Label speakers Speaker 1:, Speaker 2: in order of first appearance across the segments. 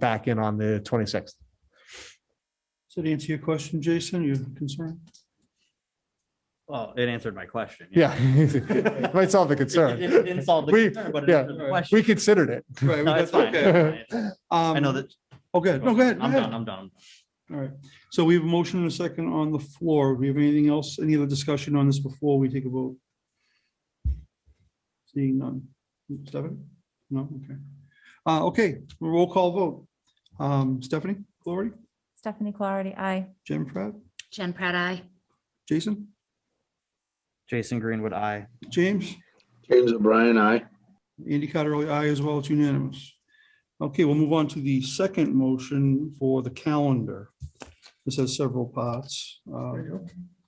Speaker 1: back in on the twenty-sixth.
Speaker 2: Does that answer your question, Jason, your concern?
Speaker 3: Well, it answered my question.
Speaker 1: Yeah. Might solve the concern.
Speaker 3: It didn't solve the
Speaker 1: We-
Speaker 3: concern, but it
Speaker 1: yeah.
Speaker 3: answered the question.
Speaker 1: We considered it.
Speaker 2: Right. we
Speaker 3: No,
Speaker 2: got-
Speaker 3: it's fine.
Speaker 2: okay.
Speaker 3: it's fine. I know
Speaker 2: Um,
Speaker 3: that.
Speaker 2: Oh, good. No, go ahead. go
Speaker 3: I'm
Speaker 2: ahead.
Speaker 3: done, I'm done.
Speaker 2: All right. So we have a motion and a second on the floor. Do we have anything else, any other discussion on this before we take a vote? Seeing none. Stephanie? No, okay. Uh, okay, roll call vote. Um, Stephanie, Glory,
Speaker 4: Stephanie Clarity, I.
Speaker 2: Jim Pratt,
Speaker 5: Jen Pratt, I.
Speaker 2: Jason,
Speaker 3: Jason Greenwood, I.
Speaker 2: James?
Speaker 6: James O'Brien, aye.
Speaker 2: Andy Cotterelli, aye as well. It's unanimous. Okay, we'll move on to the second motion for the calendar. This has several parts. Uh,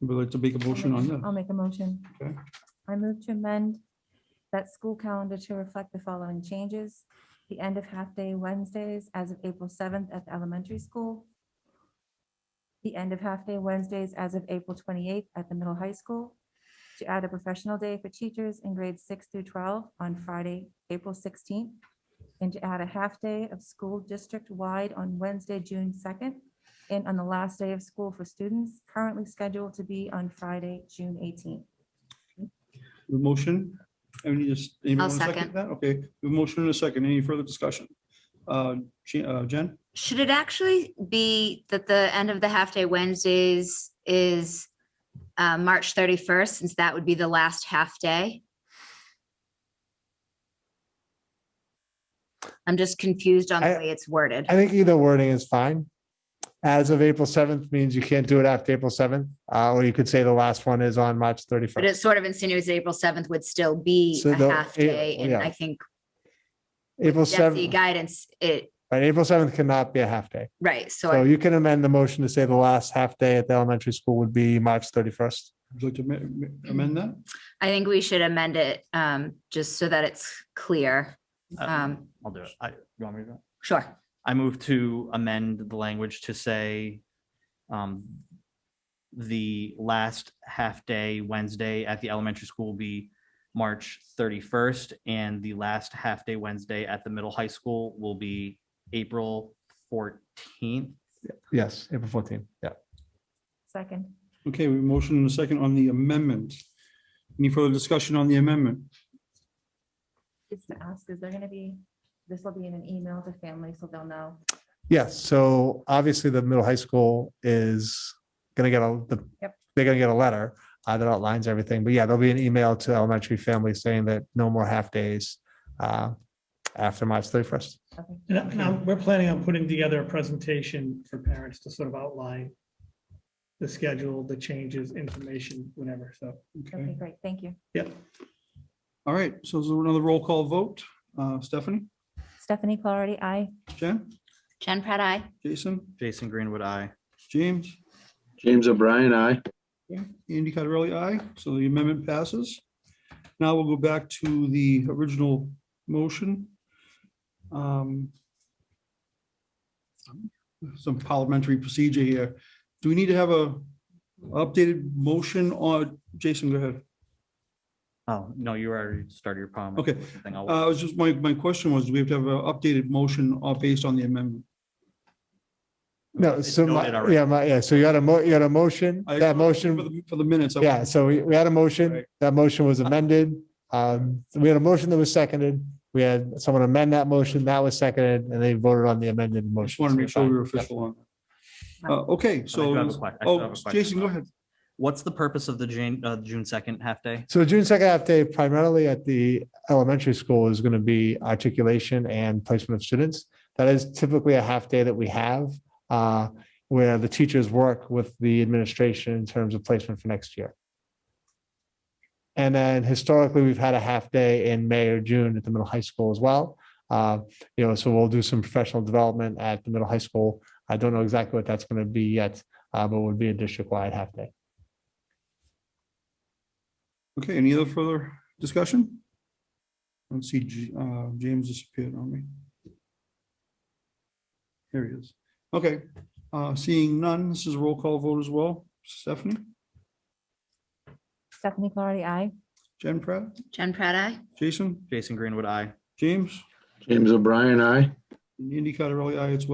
Speaker 2: We'd like to make a motion on that.
Speaker 4: I'll make a motion.
Speaker 2: Okay.
Speaker 4: I move to amend that school calendar to reflect the following changes. The end of half-day Wednesdays as of April seventh at the elementary school. The end of half-day Wednesdays as of April twenty-eighth at the middle high school. To add a professional day for teachers in grades six through twelve on Friday, April sixteenth. And to add a half-day of school district-wide on Wednesday, June second and on the last day of school for students currently scheduled to be on Friday, June 18th.
Speaker 2: The motion? Any just? anybody
Speaker 5: I'll
Speaker 2: wanna
Speaker 5: second.
Speaker 2: That, okay. The motion and a second. Any further discussion? Uh, Je- uh, Jen?
Speaker 5: Should it actually be that the end of the half-day Wednesdays is uh, March 31st, since that would be the last half-day? I'm just confused on the
Speaker 1: I-
Speaker 5: way it's worded.
Speaker 1: I think either wording is fine. As of April seventh means you can't do it after April seventh, uh, or you could say the last one is on March
Speaker 5: But
Speaker 1: thirty-first.
Speaker 5: it sort of insinuates April 7th would still be
Speaker 1: So
Speaker 5: a
Speaker 1: the-
Speaker 5: half-day, and
Speaker 1: yeah.
Speaker 5: I think
Speaker 1: April
Speaker 5: Desi
Speaker 1: seventh,
Speaker 5: guidance, it,
Speaker 1: right, April seventh cannot be a half day.
Speaker 5: right, so
Speaker 1: So
Speaker 5: I-
Speaker 1: you can amend the motion to say the last half day at the elementary school would be March thirty-first.
Speaker 2: Would you like to ma- ma- amend that?
Speaker 5: I think we should amend it um, just so that it's clear.
Speaker 3: Uh,
Speaker 5: Um,
Speaker 3: I'll do it. I, you want me to do it?
Speaker 5: Sure.
Speaker 3: I move to amend the language to say um, the last half-day Wednesday at the elementary school will be March 31st, and the last half-day Wednesday at the middle high school will be April 14th.
Speaker 1: Yes, April fourteenth. Yeah.
Speaker 4: Second,
Speaker 2: Okay, we have a motion and a second on the amendment. Any further discussion on the amendment?
Speaker 4: just to ask, is there going to be, this will be in an email to families so they'll know.
Speaker 1: Yes, so obviously the middle high school is gonna get a, the,
Speaker 4: Yep.
Speaker 1: they're gonna get a letter uh, that outlines everything, but yeah, there'll be an email to elementary families saying that no more half days uh, after March thirty-first.
Speaker 4: Okay.
Speaker 7: And I- and I'm- we're planning on putting together a presentation for parents to sort of outline the schedule, the changes, information, whatever, so.
Speaker 4: Okay,
Speaker 2: Okay,
Speaker 4: great, thank you.
Speaker 2: all right. So is there another roll call vote? Uh, Stephanie,
Speaker 4: Stephanie Clarity, I.
Speaker 2: Jen,
Speaker 5: Jen Pratt, I.
Speaker 2: Jason,
Speaker 3: Jason Greenwood, I.
Speaker 2: James?
Speaker 6: James O'Brien, aye.
Speaker 2: Andy Cotterelli, aye. So the amendment passes. Now we'll go back to the original motion. Um, Some parliamentary procedure here. Do we need to have a updated motion or, Jason, go ahead.
Speaker 3: Oh, no, you already started your comment.
Speaker 2: Okay.
Speaker 3: with the thing. I'll-
Speaker 2: Uh, I was just, my, my question was, do we have to have an updated motion or based on the amendment?
Speaker 1: No,
Speaker 3: It's
Speaker 1: so,
Speaker 3: noted
Speaker 1: my-
Speaker 3: already.
Speaker 1: yeah, my, yeah, so you had a mo, you had a motion,
Speaker 2: I-
Speaker 1: that
Speaker 2: For
Speaker 1: motion,
Speaker 2: the- For the minutes. I-
Speaker 1: yeah, so we, we had a motion,
Speaker 2: Right.
Speaker 1: that motion was amended. Um, we had a motion that was seconded, we had someone amend that motion, that was seconded, and they voted on the amended
Speaker 2: I
Speaker 1: motion.
Speaker 2: Just want to
Speaker 1: so
Speaker 2: make sure
Speaker 1: fine.
Speaker 2: we're
Speaker 1: Yep.
Speaker 2: official on. that. Uh, okay,
Speaker 3: But I do have a
Speaker 2: so,
Speaker 3: que- I do have
Speaker 2: oh,
Speaker 3: a question
Speaker 2: Jason, go
Speaker 3: about it.
Speaker 2: ahead.
Speaker 3: What's the purpose of the June, uh, June 2nd half-day?
Speaker 1: So June second half day primarily at the elementary school is going to be articulation and placement of students. That is typically a half day that we have uh, where the teachers work with the administration in terms of placement for next year. And then historically, we've had a half day in May or June at the middle high school as well. Uh, You know, so we'll do some professional development at the middle high school. I don't know exactly what that's going to be yet, uh, but it would be a district-wide half day.
Speaker 2: Okay, any other further discussion? I Let's see, J- uh, James disappeared on me. Here he is. Okay, uh, seeing none, this is a roll call vote as well. Stephanie,
Speaker 4: Stephanie Clarity, I.
Speaker 2: Jen Pratt,
Speaker 5: Jen Pratt, I.
Speaker 2: Jason,
Speaker 3: Jason Greenwood, I.
Speaker 2: James,
Speaker 6: James O'Brien, aye.
Speaker 2: Andy Carterelli, aye as well.